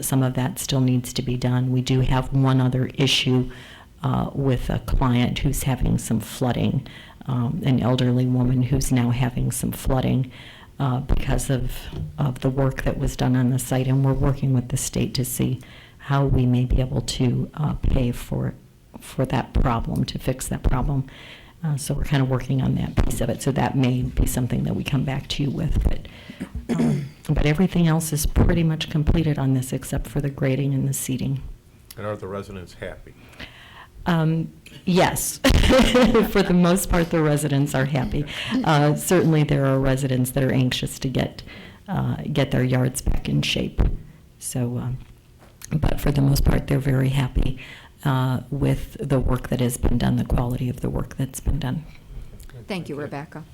some of that still needs to be done. We do have one other issue uh, with a client who's having some flooding, um, an elderly woman who's now having some flooding uh, because of, of the work that was done on the site. And we're working with the state to see how we may be able to uh, pay for, for that problem, to fix that problem. Uh, So we're kind of working on that piece of it. So that may be something that we come back to you with. But um, but everything else is pretty much completed on this except for the grading and the seating. And are the residents happy? Um, Yes, for the most part, the residents are happy. Uh, Certainly, there are residents that are anxious to get, uh, get their yards back in shape. So, um, but for the most part, they're very happy uh, with the work that has been done, the quality of the work that's been done. Thank you, Rebecca.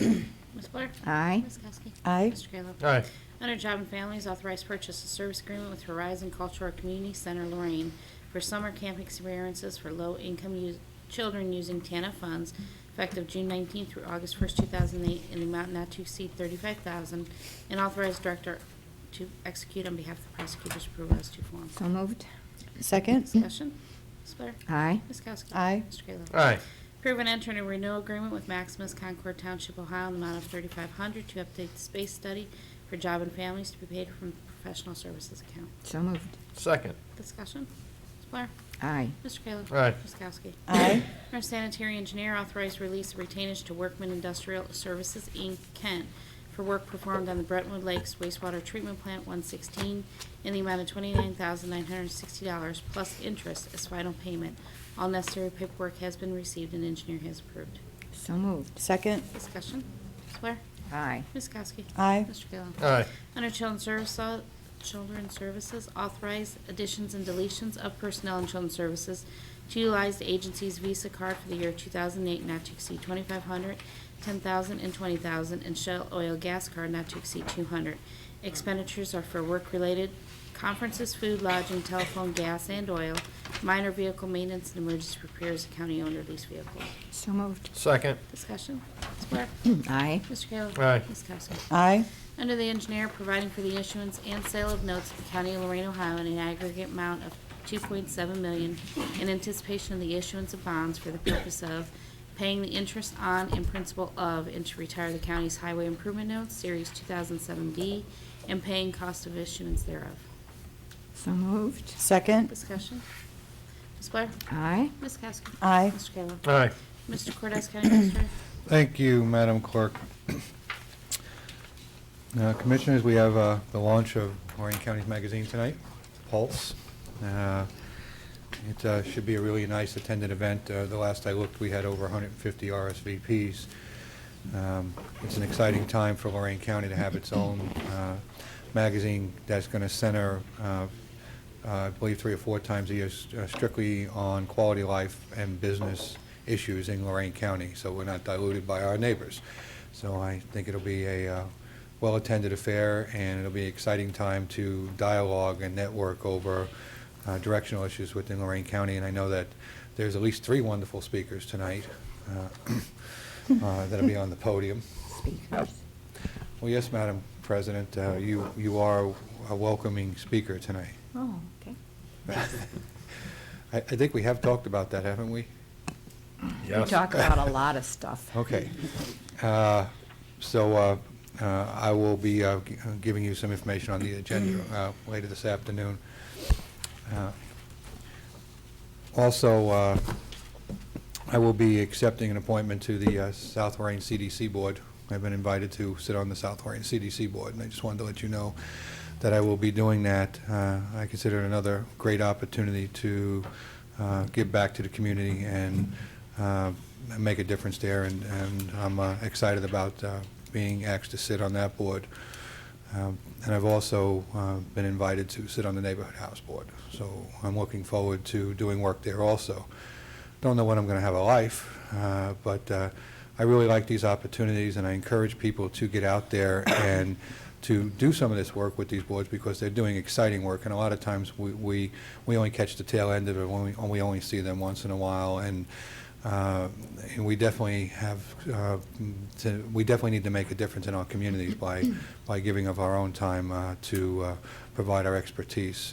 Ms. Blair? Aye. Ms. Kowski? Aye. Mr. Kayla? Aye. Under Job and Families, authorized purchase of service agreement with Horizon Cultural Community Center Lorraine for summer camp experiences for low-income us- children using TANF funds effective June 19th through August 1st, 2008, in the amount not to exceed 35000 and authorized director to execute on behalf of the prosecutor's approval as to form. So moved. Second? Discussion. Ms. Blair? Aye. Ms. Kowski? Aye. Mr. Kayla? Aye. Approve and enter a renewal agreement with Maximus Concord Township, Ohio, in the amount of 3500 to update the space study for job and families to be paid from the professional services account. So moved. Second. Discussion? Ms. Blair? Aye. Mr. Kayla? Aye. Ms. Kowski? Aye. Our sanitary engineer authorized release of retainage to Workman Industrial Services, Inc., Kent, for work performed on the Brentwood Lakes wastewater treatment plant 116 in the amount of $29,960 plus interest as final payment. All necessary paperwork has been received and engineer has approved. So moved. Second? Discussion. Ms. Blair? Aye. Ms. Kowski? Aye. Mr. Kayla? Aye. Under Children's Services, Children's Services, authorize additions and deletions of personnel in Children's Services to utilize the agency's Visa card for the year 2008 not to exceed 2,500, 10,000, and 20,000, and Shell Oil Gas Card not to exceed 200. Expenditures are for work-related conferences, food, lodging, telephone, gas, and oil, minor vehicle maintenance, and emergency repairs of county-owned or leased vehicles. So moved. Second. Discussion. Ms. Blair? Aye. Mr. Kayla? Aye. Ms. Kowski? Aye. Under the engineer, providing for the issuance and sale of notes of the County of Lorraine, Ohio in an aggregate amount of 2.7 million in anticipation of the issuance of bonds for the purpose of paying the interest on and principal of and to retire the county's highway improvement notes, Series 2007B, and paying cost of issuance thereof. So moved. Second? Discussion? Ms. Blair? Aye. Ms. Kowski? Aye. Mr. Kayla? Aye. Mr. Cordes, County Administrator? Thank you, Madam Clerk. Uh, Commissioners, we have uh, the launch of Lorraine County's magazine tonight, Pulse. Uh, It uh, should be a really nice attended event. Uh, The last I looked, we had over 150 RSVPs. Um, It's an exciting time for Lorraine County to have its own uh, magazine that's going to center, uh, uh, I believe, three or four times a year s- uh, strictly on quality of life and business issues in Lorraine County, so we're not diluted by our neighbors. So I think it'll be a uh, well-attended affair, and it'll be an exciting time to dialogue and network over uh, directional issues within Lorraine County, and I know that there's at least three wonderful speakers tonight uh, uh, that'll be on the podium. Speakers. Well, yes, Madam President, uh, you you are a welcoming speaker tonight. Oh, okay. I I think we have talked about that, haven't we? We talk about a lot of stuff. Okay. Uh, So uh, uh, I will be uh, g- uh, giving you some information on the agenda uh, later this afternoon. Uh, Also, uh, I will be accepting an appointment to the uh, South Lorraine CDC Board. I've been invited to sit on the South Lorraine CDC Board, and I just wanted to let you know that I will be doing that. Uh, I consider it another great opportunity to uh, give back to the community and uh, make a difference there, and and I'm uh, excited about uh, being asked to sit on that board. Um, And I've also uh, been invited to sit on the Neighborhood House Board, so I'm looking forward to doing work there also. Don't know when I'm going to have a life, uh, but uh, I really like these opportunities, and I encourage people to get out there and to do some of this work with these boards, because they're doing exciting work, and a lot of times, we- we we only catch the tail end of it, when we we only see them once in a while, and uh, and we definitely have, uh, to- we definitely need to make a difference in our communities by, by giving of our own time uh, to uh, provide our expertise.